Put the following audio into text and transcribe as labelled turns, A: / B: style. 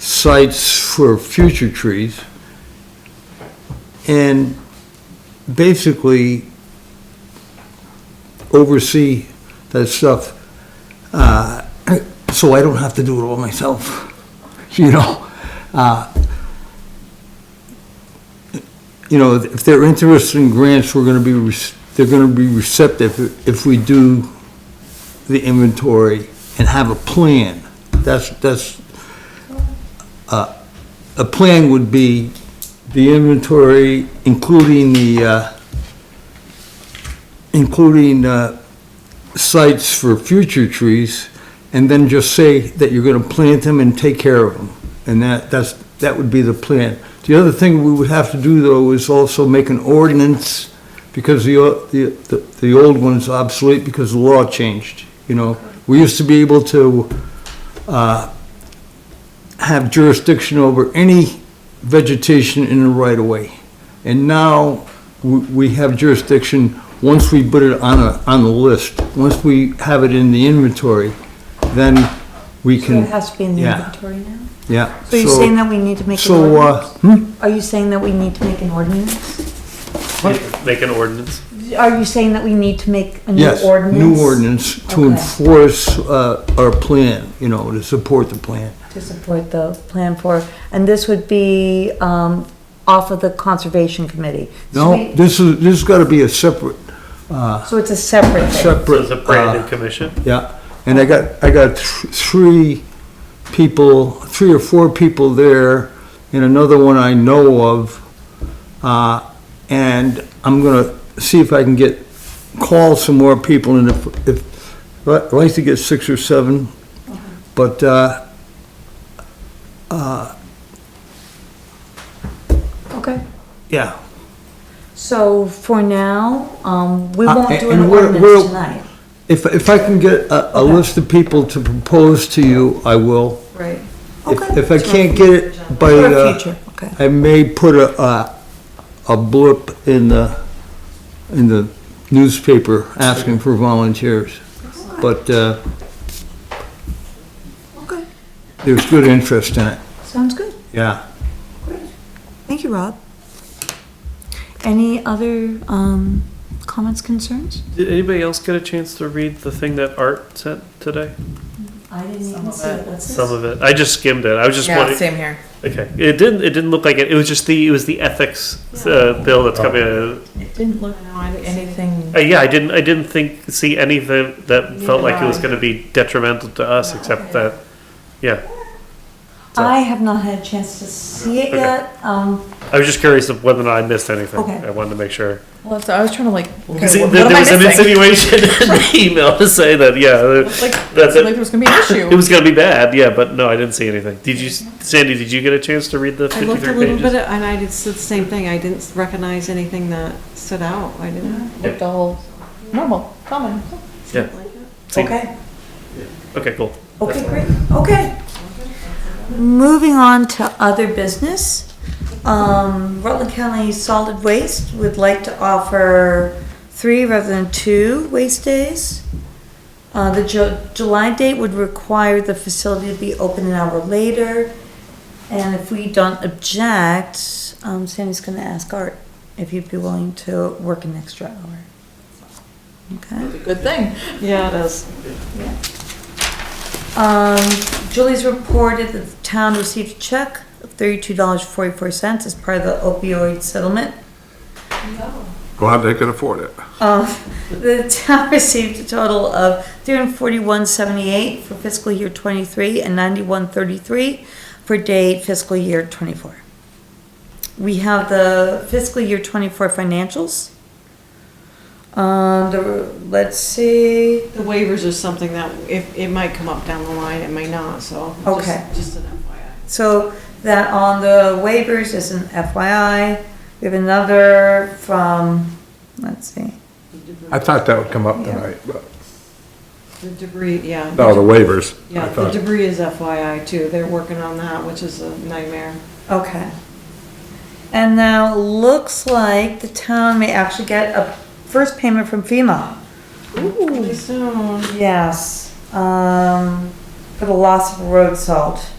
A: sites for future trees. And basically oversee that stuff, uh, so I don't have to do it all myself, you know? Uh, You know, if they're interested in grants, we're gonna be, rec- they're gonna be receptive if we do the inventory and have a plan. That's, that's, uh, a plan would be the inventory, including the, uh, including, uh, sites for future trees, and then just say that you're gonna plant them and take care of them. And that, that's, that would be the plan. The other thing we would have to do, though, is also make an ordinance, because the, o- the, the- the old one's obsolete because the law changed, you know? We used to be able to, uh, have jurisdiction over any vegetation in the right-of-way. And now, we, we have jurisdiction, once we put it on a, on the list, once we have it in the inventory, then we
B: So it
A: can,
B: has to be in the
A: yeah.
B: inventory now?
A: yeah.
B: So you're saying that we need to make an
A: So, uh,
B: ordinance?
A: hmm?
B: Are you saying that we need to make an ordinance?
C: Make an ordinance.
B: Are you saying that we need to make a new
A: Yes,
B: ordinance?
A: new ordinance to
B: Okay.
A: enforce uh, our plan, you know, to support the plan.
B: To support the plan for, and this would be, um, off of the conservation committee? So
A: No,
B: we-
A: this is, this has got to be a separate,
B: So it's a separate thing?
C: So it's
A: separate,
C: a brand
A: uh,
C: new commission.
A: yeah. And I got, I got th- three people, three or four people there, and another one I know of. Uh, And I'm going to see if I can get, call some more people, and if, if, I'd like to get six or seven, but, uh,
B: Okay.
A: yeah.
B: So for now, um, we
A: Uh,
B: won't do
A: and
B: an
A: we're- we're-
B: ordinance tonight.
A: If, if I can get a, a
B: Okay.
A: list of people to propose to you, I will.
B: Right.
A: If,
B: Okay.
A: if I can't get it by,
B: For
A: uh,
B: future, okay.
A: I may put a, a, a blip in the, in the newspaper asking for volunteers. But, uh,
B: Okay,
A: there's good interest in it,
B: sounds good.
A: yeah.
B: Thank you, Rob. Any other, um, comments, concerns?
C: Did anybody else get a chance to read the thing that Art sent today?
B: I didn't even see it, what's
C: Some of it. I just skimmed it. I was just
D: Yeah,
C: wondering.
D: same here.
C: Okay. It didn't. It didn't look like it. It was just the. It was the ethics uh, bill that's coming. Uh,
D: It didn't look anything.
C: uh, yeah, I didn't. I didn't think see anything that felt like it was
D: I.
C: going to be detrimental to us, except that. Yeah,
B: I have not had a chance to see it
C: Okay.
B: yet, um,
C: I was just curious of whether or not I missed anything.
B: Okay.
C: I wanted to make sure.
D: Well, so I was trying to like.
C: Because
D: okay, what
C: there,
D: am
C: there
D: I
C: was an
D: missing?
C: insinuation in the email to say that. Yeah,
D: It's Like,
C: That's
D: it
C: it.
D: seemed like there was gonna be an issue.
C: It was gonna be bad, yeah, but no, I didn't see anything. Did you, Sandy? Did you get a chance to read the
E: I looked a
C: fifty-three
E: little bit,
C: pages?
E: at- and I did, said the same thing, I didn't recognize anything that stood out, I didn't.
D: Looked all normal, common.
C: Yeah. See-
B: okay,
C: Okay. Cool.
B: okay, great, okay. Moving on to other business, um, Rutland County Solid Waste would like to offer three rather than two waste days. Uh, the Ju- July date would require the facility to be open an hour later. And if we don't object, um, Sandy's gonna ask Art if he'd be willing to work an extra hour. Okay,
D: Good thing.
E: Yeah, it is.
B: um, Julie's reported that the town received a check of thirty-two dollars forty-four cents as part of the opioid settlement.
F: Glad they could afford it.
B: Um, the town received a total of three hundred forty-one seventy-eight for fiscal year twenty-three and ninety-one thirty-three for date fiscal year twenty-four. We have the fiscal year twenty-four financials. Um, the, let's see,
E: The waivers is something that, if, it might come up down the line, it may not, so. just-
B: Okay.
E: Just an FYI.
B: so that on the waivers is an FYI. We have another from, let's see.
F: I thought that would come up tonight, but,
E: The debris, yeah.
F: no, Oh, the waivers. I
E: Yeah, the
F: thought.
E: debris is FYI too, they're working on that, which is a nightmare.
B: Okay. And now it looks like the town may actually get a first payment from FEMA.
E: Pretty soon.
B: Yes, um, for the loss of road salt.